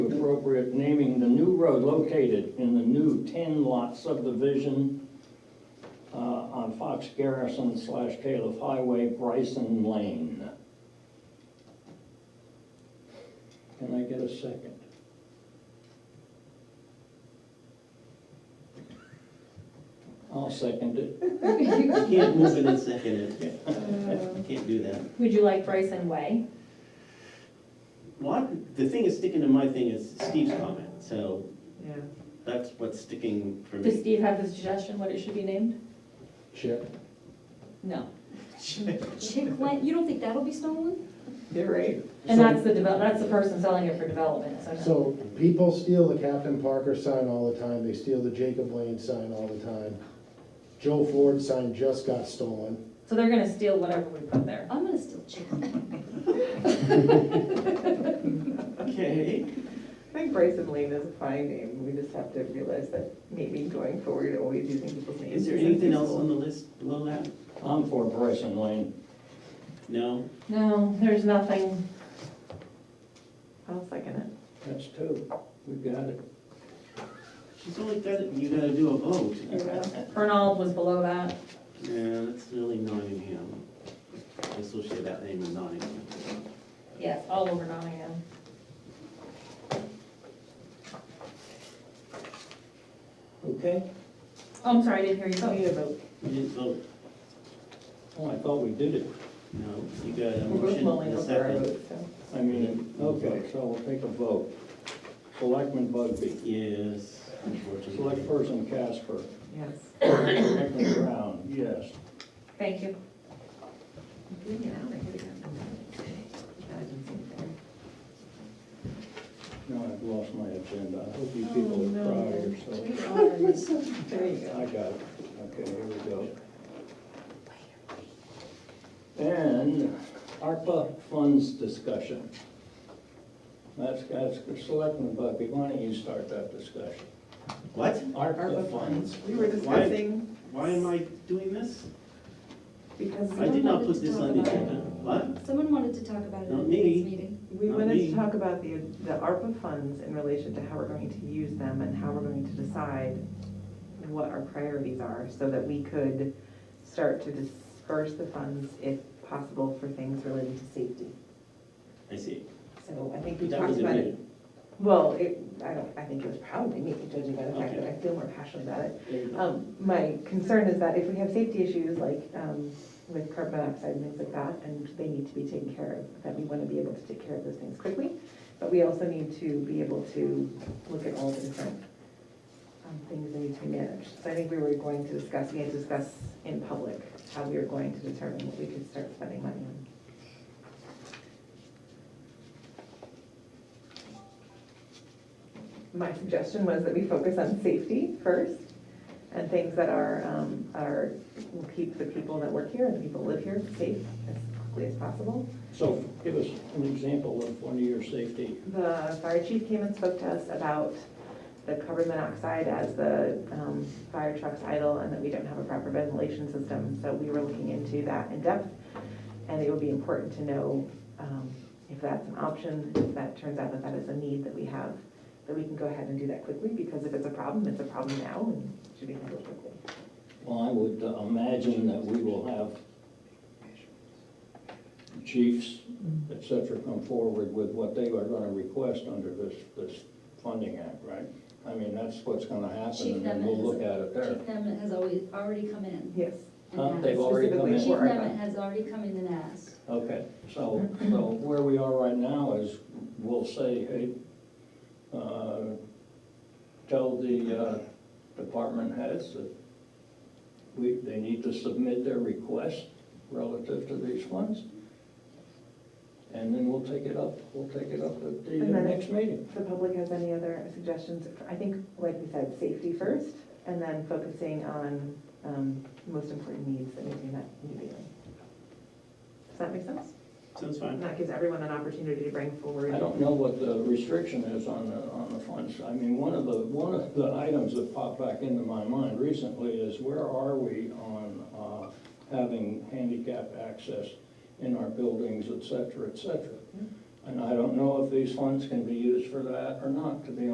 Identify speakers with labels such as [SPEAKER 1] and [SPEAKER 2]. [SPEAKER 1] appropriate naming the new road located in the new ten-lot subdivision uh, on Fox Garrison slash Caleb Highway, Bryson Lane. Can I get a second? I'll second it.
[SPEAKER 2] You can't move it and second it. You
[SPEAKER 3] Uh,
[SPEAKER 2] can't do that.
[SPEAKER 3] Would you like Bryson Way?
[SPEAKER 2] Well, I- the thing is sticking to my thing is Steve's comment, so
[SPEAKER 4] Yeah.
[SPEAKER 2] that's what's sticking for
[SPEAKER 3] Does
[SPEAKER 2] me.
[SPEAKER 3] Steve have a suggestion what it should be named?
[SPEAKER 5] Chip.
[SPEAKER 3] No. Chick Lane, you don't think that'll be stolen?
[SPEAKER 4] They're right.
[SPEAKER 3] And that's the develop, that's the person selling it for development, so no.
[SPEAKER 5] So people steal the Captain Parker sign all the time, they steal the Jacob Lane sign all the time. Joe Ford sign just got stolen.
[SPEAKER 3] So they're gonna steal whatever we put there.
[SPEAKER 6] I'm gonna still check.
[SPEAKER 2] Okay,
[SPEAKER 4] I think Bryson Lane is a fine name, we just have to realize that maybe going forward, always using people's names.
[SPEAKER 2] is there anything else on the list below that?
[SPEAKER 1] I'm for Bryson Lane.
[SPEAKER 2] No?
[SPEAKER 3] No, there's nothing.
[SPEAKER 4] I'll second it.
[SPEAKER 1] That's two. We got it.
[SPEAKER 2] She's only got, it- you gotta do a vote.
[SPEAKER 3] Fernald was below that.
[SPEAKER 2] Yeah, that's really Nottingham. I associate that name with Nottingham.
[SPEAKER 3] Yes, all over Nottingham.
[SPEAKER 1] Okay?
[SPEAKER 3] Oh, I'm sorry, I didn't hear you.
[SPEAKER 4] need a vote.
[SPEAKER 2] You didn't vote,
[SPEAKER 1] Oh, I thought we did it.
[SPEAKER 2] no, you got a
[SPEAKER 4] We're both
[SPEAKER 2] motion
[SPEAKER 4] mulling
[SPEAKER 2] and a
[SPEAKER 4] over our
[SPEAKER 2] second.
[SPEAKER 4] votes, so.
[SPEAKER 1] I mean, okay, so we'll take a vote. Selectman Bugby.
[SPEAKER 2] Yes,
[SPEAKER 1] Select
[SPEAKER 2] unfortunately.
[SPEAKER 1] person Casper.
[SPEAKER 4] Yes.
[SPEAKER 1] Selectman Brown, yes.
[SPEAKER 3] Thank you.
[SPEAKER 1] Now I've lost my agenda. I hope you people are
[SPEAKER 4] Oh,
[SPEAKER 1] proud
[SPEAKER 4] no.
[SPEAKER 1] of yourself.
[SPEAKER 4] There you go.
[SPEAKER 1] I got it. Okay, here we go. And ARPA funds discussion. That's, that's Selectman Bugby. Why don't you start that discussion?
[SPEAKER 2] What?
[SPEAKER 1] ARPA funds.
[SPEAKER 4] We were
[SPEAKER 2] Why-
[SPEAKER 4] discussing
[SPEAKER 2] Why am I doing this?
[SPEAKER 4] because
[SPEAKER 2] I did not put this on the agenda. What?
[SPEAKER 6] Someone wanted to talk about it
[SPEAKER 2] Not
[SPEAKER 6] in
[SPEAKER 2] me.
[SPEAKER 6] this meeting.
[SPEAKER 4] we
[SPEAKER 2] Not
[SPEAKER 4] wanted
[SPEAKER 2] me.
[SPEAKER 4] to talk about the, the ARPA funds in relation to how we're going to use them and how we're going to decide what our priorities are so that we could start to disperse the funds if possible for things related to safety.
[SPEAKER 2] I see.
[SPEAKER 4] So I think we
[SPEAKER 2] That
[SPEAKER 4] talked
[SPEAKER 2] was a
[SPEAKER 4] about it
[SPEAKER 2] bit.
[SPEAKER 4] Well, it, I don't, I think it was probably me, judging by the fact that
[SPEAKER 2] Okay.
[SPEAKER 4] I feel more passionate about it.
[SPEAKER 2] There you go.
[SPEAKER 4] Um, my concern is that if we have safety issues like, um, with carbon monoxide and things like that, and they need to be taken care of, that we wanna be able to take care of those things quickly. But we also need to be able to look at all the different, um, things that need to be managed. So I think we were going to discuss, we had to discuss in public how we were going to determine what we could start spending money on. my suggestion was that we focus on safety first and things that are, um, are, will keep the people that work here and the people who live here safe as quickly as possible.
[SPEAKER 1] So give us an example of one of your safety.
[SPEAKER 4] The fire chief came and spoke to us about the carbon monoxide as the um, fire trucks idle and that we don't have a proper ventilation system. So we were looking into that in depth. And it would be important to know um, if that's an option, if that turns out that that is a need that we have, that we can go ahead and do that quickly because if it's a problem, it's a problem now and it should be handled quickly.
[SPEAKER 1] Well, I would uh, imagine that we will have chiefs, et cetera, come forward with what they are gonna request under this, this funding act, right? I mean, that's what's gonna happen,
[SPEAKER 6] Chief
[SPEAKER 1] and then
[SPEAKER 6] Nemet
[SPEAKER 1] we'll
[SPEAKER 6] has-
[SPEAKER 1] look at it there.
[SPEAKER 6] Chief Nemet has always, already come in.
[SPEAKER 4] Yes.
[SPEAKER 6] and
[SPEAKER 1] Huh? They've
[SPEAKER 6] asked.
[SPEAKER 1] already come
[SPEAKER 4] Specifically
[SPEAKER 6] Chief
[SPEAKER 1] in.
[SPEAKER 4] for our-
[SPEAKER 6] Nemet has already come in and asked.
[SPEAKER 1] Okay, so, so where we are right now is, we'll say, hey, uh, tell the uh, department heads that we, they need to submit their request relative to these funds. And then we'll take it up, we'll take it up at the
[SPEAKER 4] And
[SPEAKER 1] uh,
[SPEAKER 4] then-
[SPEAKER 1] next meeting.
[SPEAKER 4] If the public has any other suggestions, I think, like we said, safety first, and then focusing on um, most important needs that need to be met immediately. Does that make sense?
[SPEAKER 2] Sounds
[SPEAKER 4] And
[SPEAKER 2] fine.
[SPEAKER 4] that gives everyone an opportunity to bring forward.
[SPEAKER 1] I don't know what the restriction is on the, on the funds. I mean, one of the, one of the items that popped back into my mind recently is where are we on uh, having handicap access in our buildings, et cetera, et cetera? And I don't know if these funds can be used for that or not, to be